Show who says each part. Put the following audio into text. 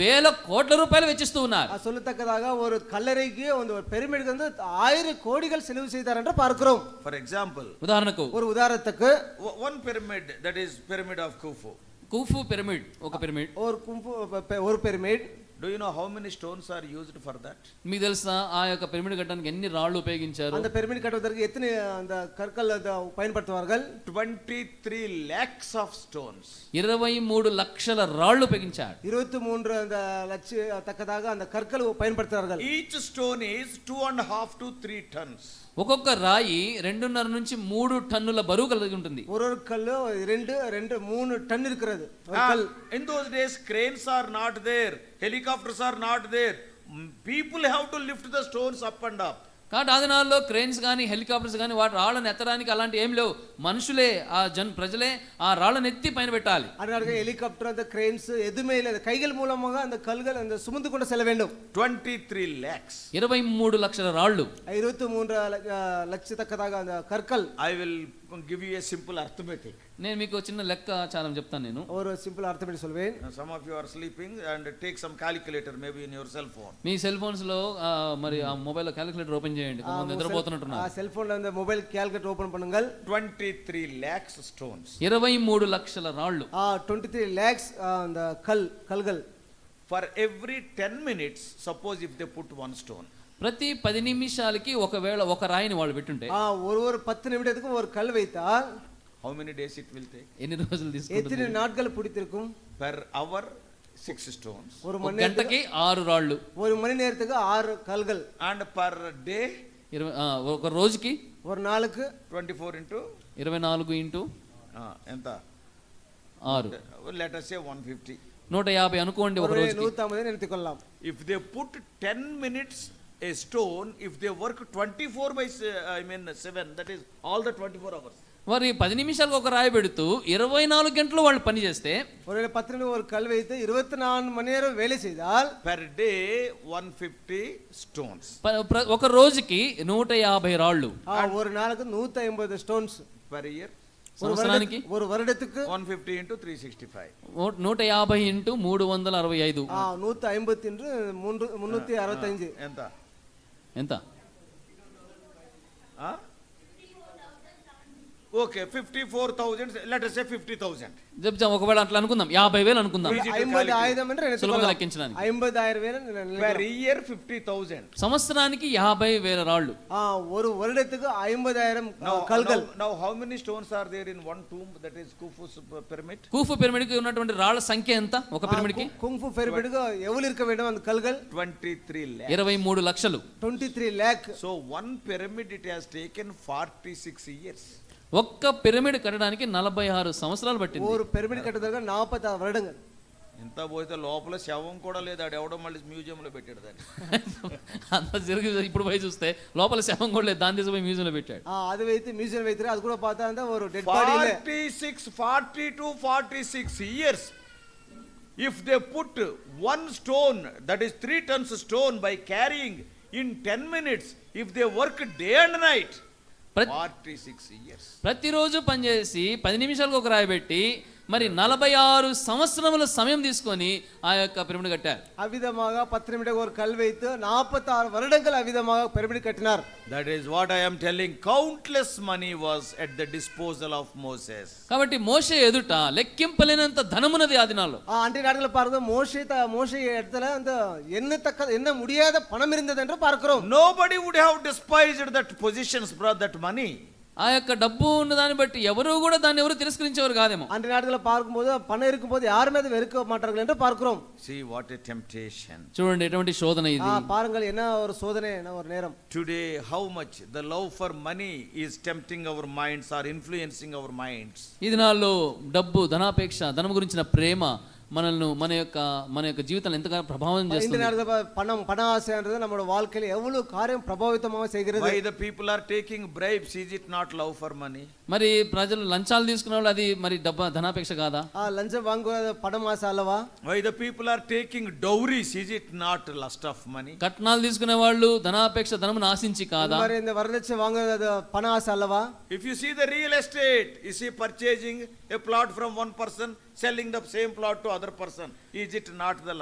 Speaker 1: వేల కోట్ల రూపాయలు వెచ్చిస్తూ ఉన్నారు
Speaker 2: அஹ் சொல்லத்தக்கதாக ஒரு கல்லறைக்கு வந்து ஒரு பெருமிடுக்கு வந்து ஆயிரம் கோடிகள் செலவு செய்தார் என்று பார்க்கிறோம்
Speaker 3: For example,
Speaker 1: ఉదాహరణకు
Speaker 2: ஒரு உதாரணத்துக்கு
Speaker 3: o- one pyramid, that is pyramid of Khufu.
Speaker 1: Khufu pyramid ఒక పిరమిడ్
Speaker 2: ஒரு கும்பு ப- ப- ஒரு பெருமிட்
Speaker 3: Do you know how many stones are used for that?
Speaker 1: మీకు తెలుసా ఆ యొక్క పిరమిడ్ కట్టడానికి ఎన్ని రాళ్ళు ఉపయోగించారు
Speaker 2: அந்த பெருமிட் கட்டுவதற்கு எத்தனை அந்த கற்கள் அந்த பயன்படுத்துவார்கள்
Speaker 3: 23 lakhs of stones.
Speaker 1: ఇరవై మూడు లక్షల రాళ్ళు ఉపయోగించాడు
Speaker 2: இருபத்தி மூன்று அந்த லட்ச தக்கதாக அந்த கற்கள் பயன்படுத்துவார்கள்
Speaker 3: Each stone is two and a half to three tons.
Speaker 1: ఒక్కొక్క రాయి రెండున్నర నుంచి మూడు టన్నుల బరువు కలిగి ఉంటుంది
Speaker 2: ஒரு ஒரு கல்லு ரெண்டு ரெண்டு மூணு டன் இருக்கிறது ஒரு கல்
Speaker 3: And in those days, cranes are not there, helicopters are not there. Mm, People have to lift the stones up and up.
Speaker 1: కాబట్టి ఆ దినాల్లో క్రెయిన్స్ కానీ హెలికాప్టర్స్ కానీ వాటి రాళ్ళను ఎత్తడానికి అలాంటి ఏం లేవు మనుషులే ఆ జన్ ప్రజలే ఆ రాళ్ళను ఎత్తి పైన పెట్టాలి
Speaker 2: அதனால ஹெலிகாப்டர் அந்த கிரெயின்ஸ் எதுவுமே இல்லை அந்த கைகள் மூலமாக அந்த கல்கள் அந்த சுமந்து கொண்டு செல்ல வேண்டும்
Speaker 3: 23 lakhs.
Speaker 1: ఇరవై మూడు లక్షల రాళ్ళు
Speaker 2: இருபத்தி மூன்று லட்சத்தக்கதாக அந்த கற்கள்
Speaker 3: I will give you a simple arithmetic.
Speaker 1: నేను మీకు చిన్న లెక్క చాలా చెప్తాను నేను
Speaker 2: ஒரு சிம்பிள் அர்த்தம் பண்ணி சொல்வேன்
Speaker 3: Now, some of you are sleeping and take some calculator, maybe in your cell phone.
Speaker 1: మీ సెల్ ఫోన్స్ లో ఆ, మరి ఆ మొబైల్ క్యాలిక్యులేటర్ ఓపెన్ చేయండి కొంతమంది నిద్రపోతున్నట్టున్నారు
Speaker 2: செல்போன்ல இந்த மொபைல் கேல்குலேட்டர் ஓபன் பண்ணுங்கள்
Speaker 3: 23 lakhs stones.
Speaker 1: ఇరవై మూడు లక్షల రాళ్ళు
Speaker 2: டுவெண்ட்டி த்ரீ லேக்ஸ் அந்த கல் கல்கள்
Speaker 3: For every 10 minutes, suppose if they put one stone,
Speaker 1: ప్రతి పది నిమిషాలకి ఒకవేళ ఒక రాయిని వాళ్ళు పెట్టుంటే
Speaker 2: ஆ, ஒரு ஒரு பத்து நிமிடத்துக்கும் ஒரு கல் வைத்தால்
Speaker 3: how many days it will take?
Speaker 1: ఎన్ని రోజులు
Speaker 2: எத்தனை
Speaker 1: తీసుకుంటుంది
Speaker 2: நாட்கள் பிடித்திருக்கும்
Speaker 3: Per hour, six stones.
Speaker 2: ஒரு
Speaker 1: ఒక
Speaker 2: மணி நேரம்
Speaker 1: గంటకి ఆరు రాళ్ళు
Speaker 2: ஒரு மணி நேரத்துக்கு ஆறு கல்கள்
Speaker 3: And per day,
Speaker 1: ఇరవై ఆ, ఒక రోజుకి
Speaker 2: ஒரு நாளுக்கு
Speaker 3: 24 into,
Speaker 1: ఇరవై నాలుగు ఇంటూ
Speaker 3: ah, ఎంత?
Speaker 1: ఆరు
Speaker 3: let us say 150.
Speaker 1: నూట యాభై అనుకోండి ఒక
Speaker 2: ஒரு
Speaker 1: రోజుకి
Speaker 2: நூற்றம்பது நிறுத்திக் கொள்ளலாம்
Speaker 3: If they put 10 minutes a stone, if they work 24 by, se- uh, I mean 7, that is all the 24 hours.
Speaker 1: మరి పది నిమిషాలకు ఒక రాయి పెడుతూ ఇరవై నాలుగు గంటలు వాళ్ళు పని చేస్తే
Speaker 2: ஒருவேளை பத்து நிமிடம் ஒரு கல் வைத்து இருபத்தி நாலு மணி நேரம் வேலை செய்தால்
Speaker 3: Per day, 150 stones.
Speaker 1: ప- ప్ర- ఒక రోజుకి నూట యాభై రాళ్ళు
Speaker 2: ஆ, ஒரு நாளுக்கு நூற்றி ஐம்பது ஸ்டோன்ஸ்
Speaker 3: Per year,
Speaker 2: ஒரு
Speaker 1: సంవత్సరానికి
Speaker 2: வருடத்துக்கு- ஒரு வருடத்துக்கு
Speaker 3: 150 into 365.
Speaker 1: ఓ- నూట యాభై ఇంటూ మూడు వందల అరవై ఐదు
Speaker 2: நூற்றி ஐம்பத்தி என்று மூன்று முந்நூற்றி அறுபத்தஞ்சு
Speaker 3: ఎంత?
Speaker 1: ఎంత
Speaker 3: okay fifty four thousand later say fifty thousand
Speaker 1: చెప్తాం ఒకవేళ అట్లా అనుకుందాం యాభై వేలు అనుకుందాం
Speaker 2: ஐம்பது ஆயிரம் என்று நினைத்துக்
Speaker 1: సులభంగా
Speaker 2: கொள்ளலாம்.
Speaker 1: లెక్కించడానికి
Speaker 2: ஐம்பதாயிரம் பேர் நினைக்கிறேன்.
Speaker 3: పర్ ఇయర్ ఫిఫ్టీ థౌజండ్
Speaker 1: సంవత్సరానికి యాభై వేల రాళ్ళు
Speaker 2: ஆ, ஒரு வருடத்துக்கு ஐம்பதாயிரம் கல்கள்
Speaker 3: now how many stones are there in one tomb that is Khufu's pyramid
Speaker 1: Khufu పిరమిడ్కి ఉన్నటువంటి రాళ్ళ సంఖ్య ఎంత ఒక పిరమిడ్కి
Speaker 2: குங்ஃபு பெருமிடுக்கு எவ்வளவு இருக்க வேண்டும் அந்த கல்கள்
Speaker 3: ట్వంటీ త్రీ ల్యాక్
Speaker 1: ఇరవై మూడు లక్షలు
Speaker 2: twenty three lakh
Speaker 3: so one pyramid it has taken forty six years
Speaker 1: ఒక్క పిరమిడ్ కట్టడానికి నలభై ఆరు సంవత్సరాలు పట్టింది
Speaker 2: ஒரு பெருமிட் கட்டுறதுக்கு நாற்பத்தாறு வருடங்கள்
Speaker 3: ఇంత పోతే లోపల శవం కూడా లేదు ఆడు ఎవడో మళ్ళీ మ్యూజియంలో పెట్టాడు దాన్ని
Speaker 1: అంత జరిగి ఇప్పుడు పోయి చూస్తే లోపల శవం కూడా లేదు దాని తీసుకుపోయి మ్యూజియంలో పెట్టాడు
Speaker 2: ஆ, அது வைத்து மியூசியம் வைத்து அது கூட பார்த்தா அந்த ஒரு டெட் பாடி இல்ல
Speaker 3: forty six forty two forty six years if they put one stone that is three tons stone by carrying in ten minutes if they work day and night
Speaker 1: ప్రతి-
Speaker 3: forty six years
Speaker 1: ప్రతిరోజు పనిచేసి పది నిమిషాలకు ఒక రాయి పెట్టి మరి నలభై ఆరు సంవత్సరముల సమయం తీసుకొని ఆ యొక్క పిరమిడ్ కట్టారు
Speaker 2: அவ்விதமாக பத்து நிமிடம் ஒரு கல் வைத்து நாற்பத்தாறு வருடங்கள் அவ்விதமாக பெருமிட் கட்டினார்
Speaker 3: that is what I'm telling countless money was at the disposal of Moses
Speaker 1: కాబట్టి మోషే ఎదుట లెక్కింపలేనంత ధనమున్నది ఆ దినాల్లో
Speaker 2: ஆ, அன்றைய நாட்களில் பாருங்க மோசே த- மோசே இடத்துல அந்த என்ன தக்க என்ன முடியாத பணம் இருந்தது என்று பார்க்கிறோம்
Speaker 3: nobody would have despised that positions బ్రా దట్ మనీ
Speaker 1: ఆ యొక్క డబ్బు ఉన్న దాన్ని బట్టి ఎవరు కూడా దాన్ని ఎవరు తిరస్కరించేవారు కాదేమో
Speaker 2: அன்றைய நாட்களில் பார்க்கும்போது பணம் இருக்கும்போது యారుమే అది వెనుక మాట్లాడగల என்று பார்க்கிறோம்
Speaker 3: సీ వాట్ ఎ టెంప్టేషన్
Speaker 1: చూడండి ఎటువంటి శోధన
Speaker 2: ஆ,
Speaker 1: ఇది
Speaker 2: பாருங்கள் என்ன ஒரு சோதனை என்ன ஒரு நேரம்
Speaker 3: Today, how much the love for money is tempting our minds or influencing our minds.
Speaker 1: ఈ దినాల్లో డబ్బు ధనాపేక్ష ధనం గురించిన ప్రేమ మనల్ని మన యొక్క మన యొక్క జీవితాన్ని ఎంతగానో ప్రభావం
Speaker 2: இந்த
Speaker 1: చేస్తుంది
Speaker 2: நேரத்தில் பா- பணம் பண ஆசைன்றது நம்மளோட வாழ்க்கையில எவ்வளவு காரியம் பிரபாவித்தமாக செய்கிறது
Speaker 3: Why the people are taking bribes? Is it not love for money?
Speaker 1: మరి ప్రజలు లంచాలు తీసుకునే వాళ్ళు అది మరి డబ్బా ధనాపేక్ష కాదా
Speaker 2: ஆ, லஞ்சம் வாங்குவது பணம் ஆசை அல்லவா
Speaker 3: Why the people are taking dowries? Is it not lust of money?
Speaker 1: కట్నాలు తీసుకునే వాళ్ళు ధనాపేక్ష ధనమును ఆశించి
Speaker 2: இந்த
Speaker 1: కాదా
Speaker 2: மாதிரி இந்த வரதட்சை வாங்குறது அது பண ஆசை அல்லவா
Speaker 3: If you see the real estate, is he purchasing a plot from one person, selling the same plot to other person? Is it not the